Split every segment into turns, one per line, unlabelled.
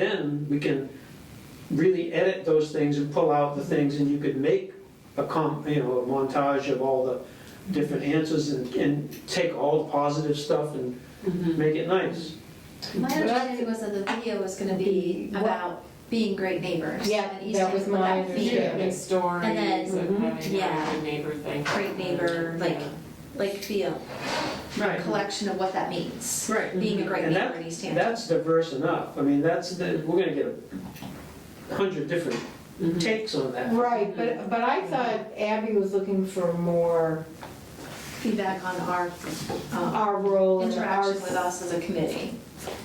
then we can really edit those things and pull out the things, and you could make a com, you know, a montage of all the different answers and, and take all the positive stuff and
Mm-hmm.
make it nice.
My understanding was that the video was gonna be about being great neighbors.
Yeah,
and East
that
Hampton
was my
without being
understanding.
Stories
And then- mm-hmm,
of having
yeah.
a good neighbor thing.
Great neighbor, like, like feel,
Right.
collection of what that means,
Right.
being a great
And
neighbor
that,
in East Hampton.
that's diverse enough. I mean, that's, the- we're gonna get a hundred different takes on that.
Right, but, but I thought Abby was looking for more uh,
Feedback on our, um,
our role and our.
interaction with us as a committee.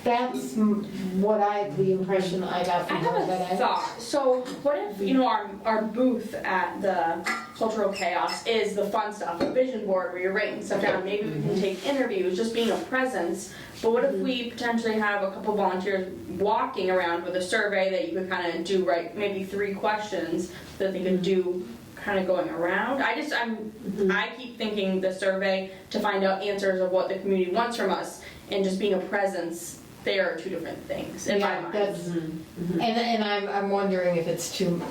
That's m- what I, the impression I got
I
from her
have
that I.
a thought. So what if, you know, our, our booth at the Cultural Chaos is the fun stuff, the vision board where you're writing stuff down. Maybe we
Mm-hmm.
can take interviews, just being a presence. But what if we potentially have a couple volunteers walking around with a survey that you could kind of do, right, maybe three questions that they could
Mm-hmm.
do kind of going around? I just, I'm, I keep thinking the survey to find out answers of what the community wants from us and just being a presence, they are two different things in my
Yeah,
mind.
that's- And, and I'm, I'm wondering if it's too,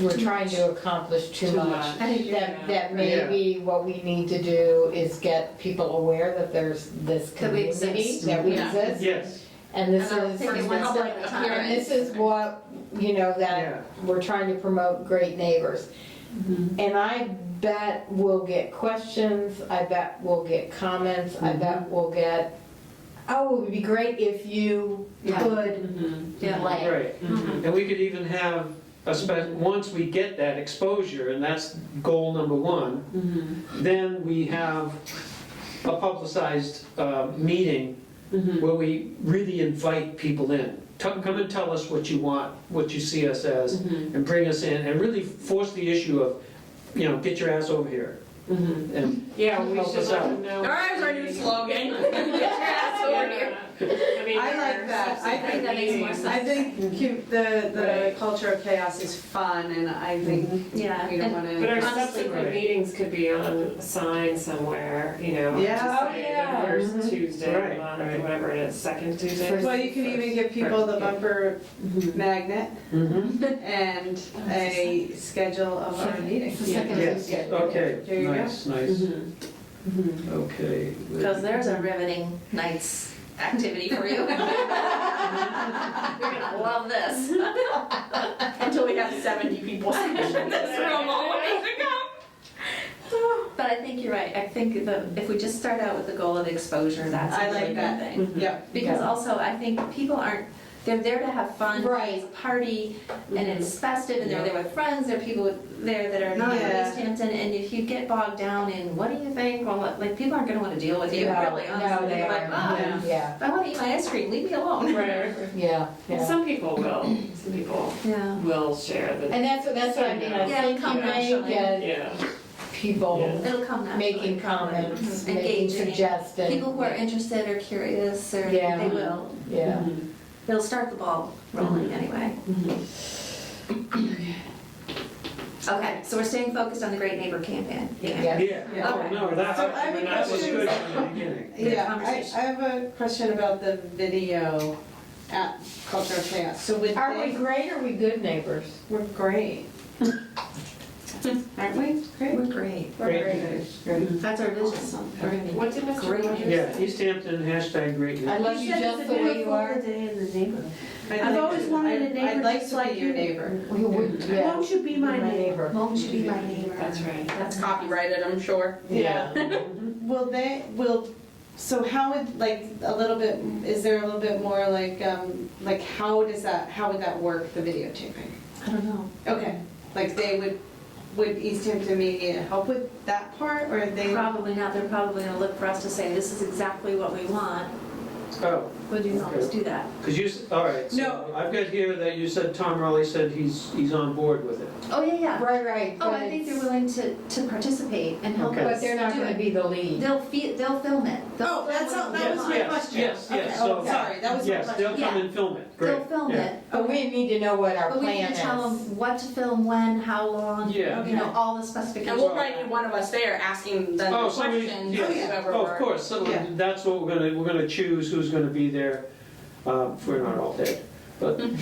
we're trying to accomplish too
Too
much.
much.
I think
That,
Yeah.
that maybe what we need to do is get people aware that there's this
That we
community.
exist.
That we
Yeah.
exist.
Yes,
And this
And I'll
is.
take it one step at a time.
And this is what, you know,
yeah.
that we're trying to promote great neighbors. And I bet we'll get questions, I bet we'll get comments, I bet we'll get, oh, it would be great if you
Yeah.
could,
Yeah.
like.
Right. And we could even have, a spe- once we get that exposure, and that's goal number one, then we have a publicized uh, meeting
Mm-hmm.
where we really invite people in. Tell- Come and tell us what you want, what you see us as,
Mm-hmm.
and bring us in, and really force the issue of, you know, get your ass over here. And
Yeah, we
Help
should
us
let
out.
them know.
All right, it's our new slogan.
Yeah. I mean,
I like that. I
I think that makes more sense.
I think cu- the, the
Right.
culture of chaos is fun and I think
Yeah,
we don't
and
want
But our
to.
subsequent meetings could be on a sign somewhere, you know. to
Yeah.
say
Oh, yeah.
The first Tuesday of the
Right,
month,
right.
or whatever it is, second Tuesday.
First-
Well, you can even give people the bumper magnet
Mhm.
and a schedule of our meetings.
The second
Yes,
is good.
okay,
There you go. Mm-hmm.
nice, nice,
Mm-hmm.
Mm-hmm.
okay.
because there's a riveting night's activity for you. You're gonna love this.
Until we have 70 people sitting in this room all the way to come.
But I think you're right. I think the, if we just start out with the goal of exposure, that's
I
a
like
really good
that.
thing.
Yeah.
Because
Yeah.
also, I think people aren't, they're there to have fun.
Right. Mm-hmm.
It's a party, and it's festive, and they're there with friends, there are people with- there that are not in
Yeah.
East Hampton, and if you get bogged down in, what do you think, well, like, like, people aren't gonna wanna deal with you,
No,
really,
No,
honestly.
they
They're like,
are,
"Ah,
yeah,
I wanna eat my ice cream, leave me alone.
Right.
yeah,
And
yeah.
Some people will, some people
Yeah.
will share the,
And that's, what that's what I mean, I
Yeah,
think you
come
may
naturally.
get
yeah.
people
It'll come naturally.
making comments, making
Engaging.
suggestions.
People who are interested or curious, or
Yeah.
they will,
Yeah.
it'll start the ball
Mm-hmm.
rolling anyway. Okay, so we're staying focused on the Great Neighbor campaign.
Yeah.
Yeah, oh, no, that,
So I have a
that was
question.
good from the beginning.
Yeah, I,
conversation.
I have a question about the video at culture of chaos. So would
Are we
they,
great, are we good neighbors?
we're great. Aren't we? Great.
We're great.
Great
That's our vision. We're gonna be
What did Mr.
Great.
Rogers say?
Yeah, East Hampton, hashtag great neighbor.
I love you just the way you are.
Day in the neighborhood.
I'd
I've
like
always
to-
wanted a
I'd-
neighbor
I'd like
just
to
like
be your
you.
neighbor.
We would, yeah.
Won't you be my neighbor?
Won't you be my neighbor?
That's right.
That's copyrighted, I'm sure.
Yeah. Will they, will, so how would, like, a little bit, is there a little bit more like, um, like, how does that, how would that work, the videotaping?
I don't know.
Okay, like, they would, would East Hampton Media help with that part, or they?
Probably not. They're probably gonna look for us to say, this is exactly what we want.
Oh,
Would you always do that?
because you, s- all right, so
No.
I've got here that you said Tom Raleigh said he's, he's on board with it.
Oh, yeah, yeah.
Right, right.
Oh,
but
I think
it's-
they're willing to, to participate and help
Okay.
us
But they're not
do
gonna
it.
be the lead.
They'll feel, they'll film it. They'll
Oh,
film
that's,
what
all-
we
that was my
want.
question.
Yes, yes,
Okay, oh,
so-
Sorry, that was my
Yes,
question.
they'll come
Yeah.
and film it, great.
They'll film
yeah.
it.
But we need to know what our
But we
plan
need to tell
is.
them what to film, when, how long, you
Yeah.
know, all the
And
specifications.
we'll probably need one of us there asking them
Oh,
the
somebody,
questions,
yes.
whoever
Oh,
we're-
of course, so
Yeah.
that's what we're gonna, we're gonna choose who's gonna be there, uh, if we're not all dead, but.